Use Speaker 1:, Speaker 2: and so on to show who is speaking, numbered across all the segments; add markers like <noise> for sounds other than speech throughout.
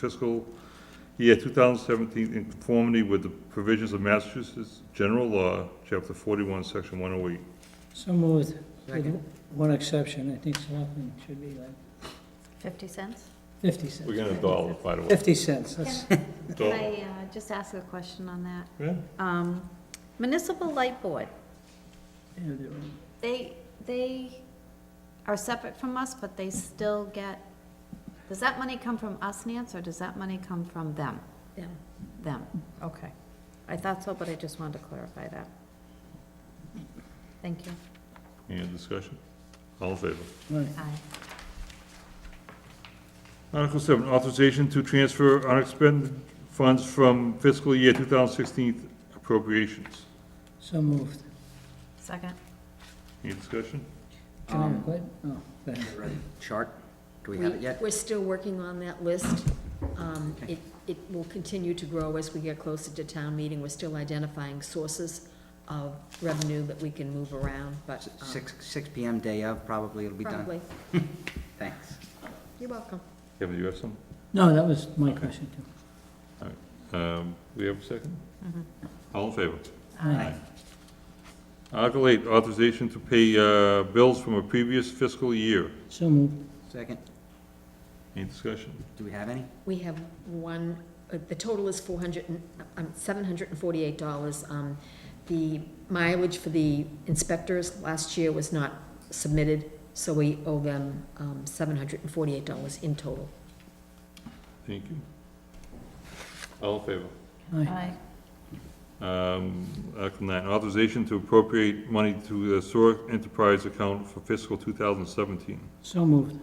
Speaker 1: fiscal year 2017 in conformity with the provisions of Massachusetts General Law, Chapter 41, Section 108.
Speaker 2: So moved, with
Speaker 3: Second.
Speaker 2: one exception, I think selectmen should be like
Speaker 4: 50 cents?
Speaker 2: fifty
Speaker 1: We're
Speaker 2: cents.
Speaker 1: gonna dollar, by the way.
Speaker 2: Fifty cents, that's, Oh.
Speaker 4: Can
Speaker 1: Dollar.
Speaker 4: I uh, just ask a question on that?
Speaker 1: Yeah.
Speaker 4: Um, Municipal Light Board,
Speaker 2: yeah, they're right.
Speaker 4: they, they are separate from us, but they still get, does that money come from us, Nance, or does that money come from them?
Speaker 3: Them.
Speaker 4: Them, okay. I thought so, but I just wanted to clarify that. Thank you.
Speaker 1: Any other discussion? All in favor?
Speaker 2: right,
Speaker 4: Aye.
Speaker 1: Article seven, authorization to transfer unexpended funds from fiscal year 2016 appropriations.
Speaker 2: so moved.
Speaker 4: Second?
Speaker 1: Any discussion?
Speaker 2: Can I
Speaker 3: Um,
Speaker 2: quit? Oh, thank you.
Speaker 3: Ready? Chart, do we have it yet?
Speaker 5: We're still working on that list. Um, It, it will continue to grow as we get closer to town meeting. We're still identifying sources of revenue that we can move around, but. um,
Speaker 3: Six, six PM day of, probably it'll be done.
Speaker 5: Probably.
Speaker 3: Thanks.
Speaker 5: You're welcome.
Speaker 1: Kevin, do you have some?
Speaker 2: No, that was my question too.
Speaker 1: Um, We have a second? All in favor?
Speaker 2: Aye.
Speaker 1: Article eight, authorization to pay uh, bills from a previous fiscal year.
Speaker 2: So moved,
Speaker 3: Second,
Speaker 1: Any discussion?
Speaker 3: do we have any?
Speaker 5: We have one, uh, the total is four hundred and, um, seven hundred and forty-eight dollars. Um, the mileage for the inspectors last year was not submitted, so we owe them, um, seven hundred and forty-eight dollars in total.
Speaker 1: Thank you. All in favor?
Speaker 2: aye,
Speaker 1: Um, Article nine, authorization to appropriate money to the SOAR enterprise account for fiscal 2017.
Speaker 2: so moved,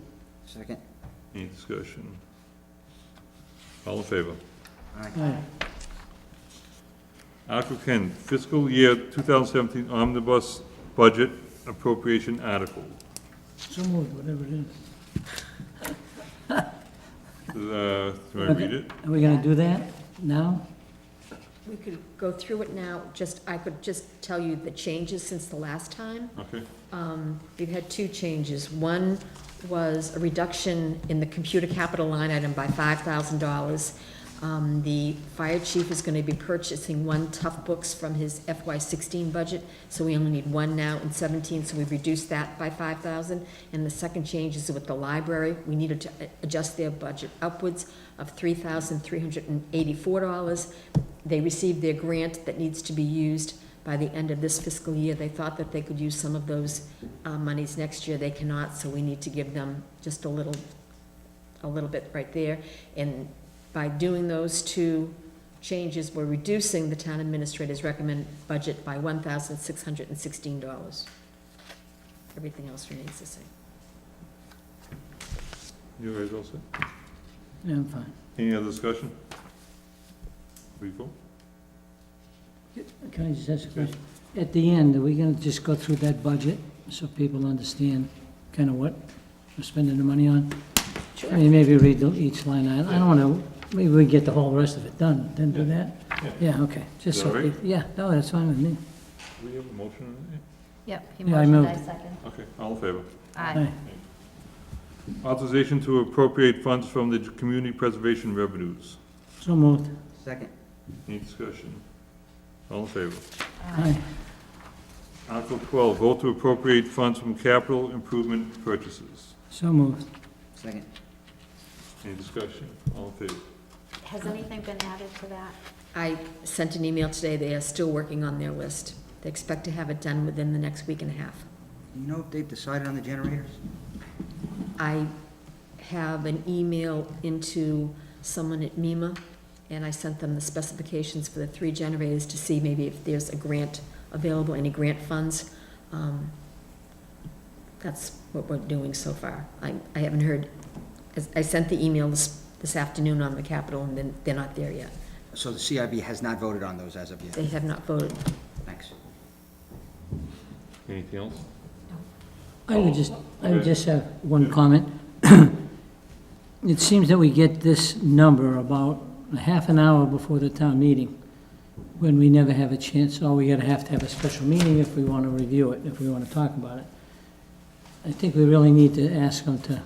Speaker 3: Second,
Speaker 1: Any discussion? All in favor?
Speaker 3: all right,
Speaker 2: aye,
Speaker 1: Article ten, fiscal year 2017 omnibus budget appropriation article.
Speaker 2: so moved, whatever it is.
Speaker 1: Uh, Do I read it?
Speaker 2: Are we gonna do that now?
Speaker 5: We could go through it now, just, I could just tell you the changes since the last time.
Speaker 1: Okay.
Speaker 5: Um, We've had two changes. One was a reduction in the computer capital line item by five thousand dollars. Um, The fire chief is gonna be purchasing one Tough Books from his FY sixteen budget, so we only need one now in seventeen, so we reduced that by five thousand. And the second change is with the library. We needed to a- adjust their budget upwards of three thousand three hundred and eighty-four dollars. They received their grant that needs to be used by the end of this fiscal year. They thought that they could use some of those uh, monies next year. They cannot, so we need to give them just a little, a little bit right there. And by doing those two changes, we're reducing the town administrator's recommended budget by one thousand six hundred and sixteen dollars. Everything else remains the same.
Speaker 1: You guys all set?
Speaker 2: Yeah, I'm fine.
Speaker 1: Any other discussion? We go?
Speaker 2: Can I just ask a question? At the end, are we gonna just go through that budget so people understand kind of what we're spending the money on? I mean, maybe read the- each line item. I don't wanna, maybe we get the whole rest of it done, then do that? Yeah, okay, just
Speaker 1: Is that
Speaker 2: so,
Speaker 1: all right?
Speaker 2: yeah, no, that's fine with me.
Speaker 1: Do we have a motion on
Speaker 4: Yep, he
Speaker 2: Yeah, I
Speaker 4: motioned, I
Speaker 2: moved.
Speaker 4: second.
Speaker 1: it? Okay, all in favor?
Speaker 4: Aye.
Speaker 1: Authorization to appropriate funds from the community preservation revenues.
Speaker 2: So moved,
Speaker 3: second,
Speaker 1: Any discussion? All in favor?
Speaker 2: aye,
Speaker 1: Article twelve, vote to appropriate funds from capital improvement purchases.
Speaker 2: so moved.
Speaker 3: second.
Speaker 1: Any discussion? All in favor?
Speaker 4: Has anything been added to that?
Speaker 5: I sent an email today. They are still working on their list. They expect to have it done within the next week and a half.
Speaker 3: You know if they've decided on the generators?
Speaker 5: I have an email into someone at MEMA, and I sent them the specifications for the three generators to see maybe if there's a grant available, any grant funds. Um, That's what we're doing so far. I, I haven't heard, I sent the email this, this afternoon on the Capitol, and then, they're not there yet.
Speaker 3: So the CIB has not voted on those as of yet,
Speaker 5: They have not voted.
Speaker 3: thanks.
Speaker 1: Anything else?
Speaker 2: I would just, I would
Speaker 1: Okay.
Speaker 2: just have one comment. <clears throat> It seems that we get this number about a half an hour before the town meeting, when we never have a chance, or we gotta have to have a special meeting if we wanna review it, if we wanna talk about it. I think we really need to ask them to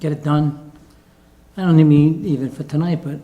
Speaker 2: get it done, I don't mean even for tonight, but